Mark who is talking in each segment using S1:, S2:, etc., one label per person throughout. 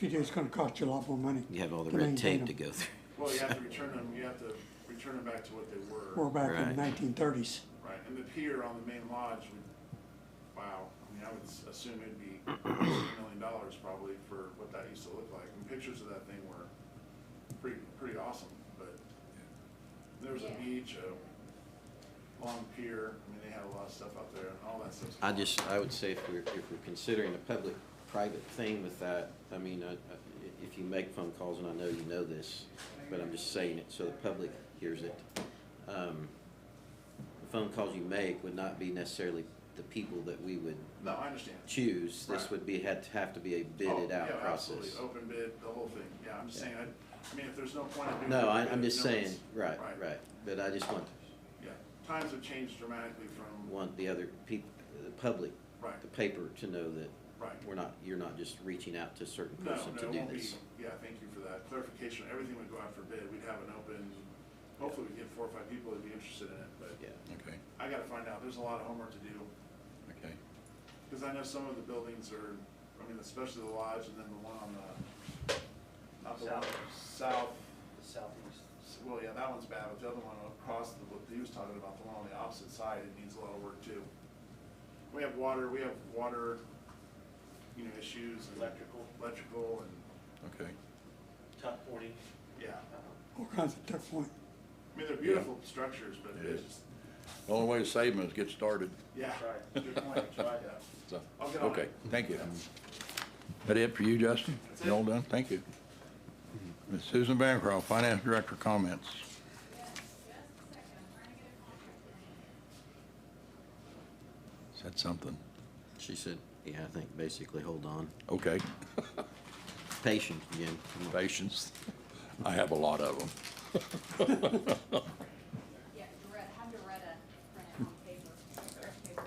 S1: PJ, it's gonna cost you a lot more money.
S2: You have all the
S1: to
S2: red
S1: maintain
S2: tape to
S1: them.
S2: go through.
S3: Well, you have to return them, you have to return them back to what they were,
S1: We're back in
S2: Right.
S1: the nineteen thirties.
S3: right? And the pier on the main lodge would, wow, I mean, I would s- assume it'd be a million dollars probably for what that used to look like. And pictures of that thing were pretty, pretty awesome, but there was a
S4: Yeah.
S3: beach, a long pier, I mean, they had a lot of stuff out there and all that stuff.
S2: I just, I would say if we're, if we're considering a public-private thing with that, I mean, I- I- if you make phone calls, and I know you know this, but I'm just saying it so the public hears it. um, The phone calls you make would not be necessarily the people that we would
S3: No, I understand.
S2: choose. This
S3: Right.
S2: would be, had, have to be a
S3: Oh,
S2: bidded
S3: yeah,
S2: out
S3: absolutely.
S2: process.
S3: Open bid, the whole thing, yeah, I'm just
S2: Yeah.
S3: saying, I, I mean, if there's no point in doing.
S2: No,
S3: open
S2: I,
S3: bid
S2: I'm
S3: if
S2: just
S3: Oh, no one's-
S2: saying, right,
S3: Right.
S2: right, but I just want,
S3: Yeah, times have changed dramatically from,
S2: want the other people, the public,
S3: right,
S2: the paper to know that
S3: right.
S2: we're not, you're not just reaching out to a certain
S3: No,
S2: person
S3: no,
S2: to
S3: it
S2: do
S3: won't be,
S2: this.
S3: yeah, thank you for that clarification. Everything would go out for bid, we'd have an open, hopefully we get four or five people that'd be interested in it, but
S2: Yeah.
S5: Okay,
S3: I gotta find out, there's a lot of homework to do.
S5: okay.
S3: Because I know some of the buildings are, I mean, especially the lodge and then the one on the, not the one, south,
S6: the southeast.
S3: s- well, yeah, that one's bad, but the other one across the, what he was talking about, the one on the opposite side, it needs a lot of work too. We have water, we have water, you know, issues. and-
S6: Electrical.
S3: Electrical and,
S5: Okay,
S6: Top forty.
S3: yeah.
S1: All kinds of tough point.
S3: I mean, they're beautiful structures, but
S5: It
S3: it's
S5: is.
S3: just,
S5: the only way to save them is get started,
S3: yeah.
S6: That's
S3: Good point, that's right, yeah.
S5: so,
S3: I'll get on
S5: okay,
S3: it.
S5: thank you. That it for you, Justin?
S3: That's it.
S5: You all done? Thank you. Ms. Susan Bancroft, Finance Director, comments. Said something.
S2: She said, yeah, I think basically, hold on,
S5: Okay,
S2: patience again. Come on.
S5: patience. I have a lot of them.
S4: Yeah, Doretta, have Doretta print it on paper, fresh paper.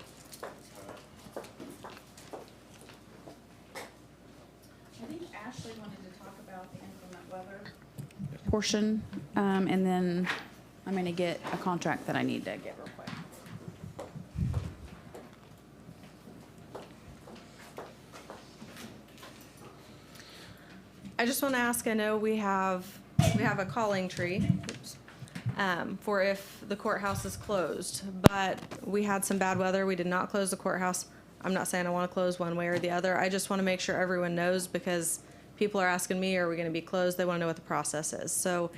S4: I think Ashley wanted to talk about the inclement weather. Portion, um, and then I'm gonna get a contract that I need to get real quick.
S7: I just want to ask, I know we have, we have a calling tree oops, um, for if the courthouse is closed, but we had some bad weather. We did not close the courthouse. I'm not saying I want to close one way or the other. I just want to make sure everyone knows because people are asking me, are we going to be closed? They want to know what the process is. So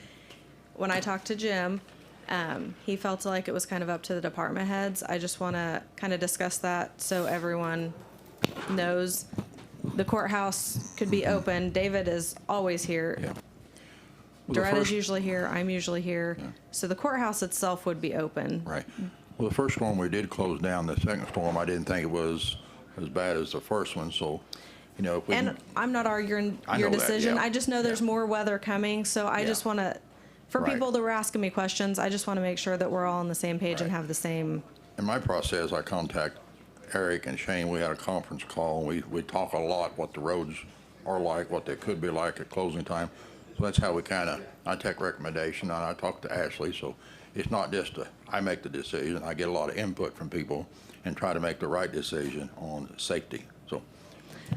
S7: when I talked to Jim, um, he felt like it was kind of up to the department heads. I just want to kind of discuss that so everyone knows the courthouse could be open. David is always here.
S5: Yeah. Well, the
S7: Doretta's
S5: first-
S7: usually here. I'm usually here.
S5: Yeah.
S7: So the courthouse itself would be open.
S5: Right. Well, the first storm we did close down. The second storm, I didn't think it was as bad as the first one, so, you know, if we.
S7: And
S5: can-
S7: I'm not arguing
S5: I
S7: your
S5: know that,
S7: decision.
S5: yeah.
S7: I just know there's
S5: Yeah.
S7: more weather coming. So I
S5: Yeah.
S7: just want to, for
S5: Right.
S7: people that were asking me questions, I just want to make sure that we're all on the same page and
S5: Right.
S7: have the same.
S5: In my process, I contact Eric and Shane. We had a conference call, and we, we talk a lot what the roads are like, what they could be like at closing time. So that's how we kind of, I take recommendation, and I talk to Ashley, so it's not just a, I make the decision. I get a lot of input from people and try to make the right decision on safety. So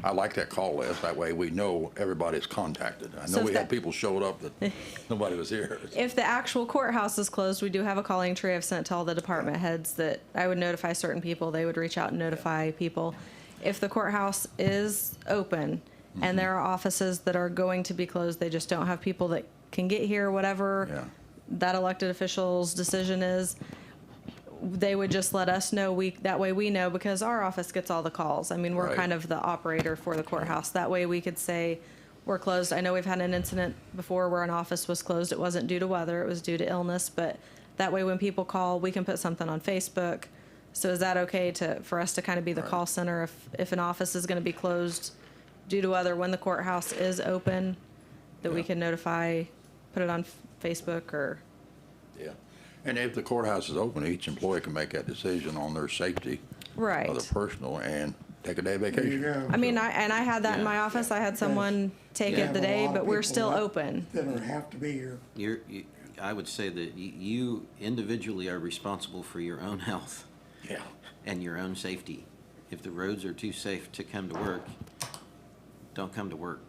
S5: I like that call list. That way we know everybody's contacted. I
S7: So
S5: know
S7: if
S5: we had
S7: that-
S5: people showed up that nobody was here.
S7: If the actual courthouse is closed, we do have a calling tree I've sent to all the department heads that I would notify certain people. They would reach out and notify people. If the courthouse is open and there are offices that are going to be closed, they just don't have people that can get here,
S5: Yeah.
S7: whatever that elected official's decision is, they would just let us know. We, that way we know because our office gets all the calls. I mean, we're
S5: Right.
S7: kind of the operator for the courthouse. That way we could say, we're closed. I know we've had an incident before where an office was closed. It wasn't due to weather, it was due to illness, but that way when people call, we can put something on Facebook. So is that okay to, for us to kind of be the
S5: Right.
S7: call center if, if an office is gonna be closed due to weather when the courthouse is open? That we
S5: Yeah.
S7: can notify, put it on F- Facebook or,
S5: Yeah. And if the courthouse is open, each employee can make that decision on their safety.
S7: right.
S5: other personal and take a day
S1: There you
S5: vacation.
S1: go.
S7: I mean, I, and I had that in my
S2: Yeah.
S7: office. I had someone take
S2: Yeah.
S7: it the
S1: Have a
S7: day,
S1: lot of
S7: but we're
S1: people
S7: still
S1: that-
S7: open.
S1: That are, have to be here.
S2: You're, you, I would say that y- you individually are responsible for your own health
S5: Yeah.
S2: and your own safety. If the roads are too safe to come to work, don't come to work.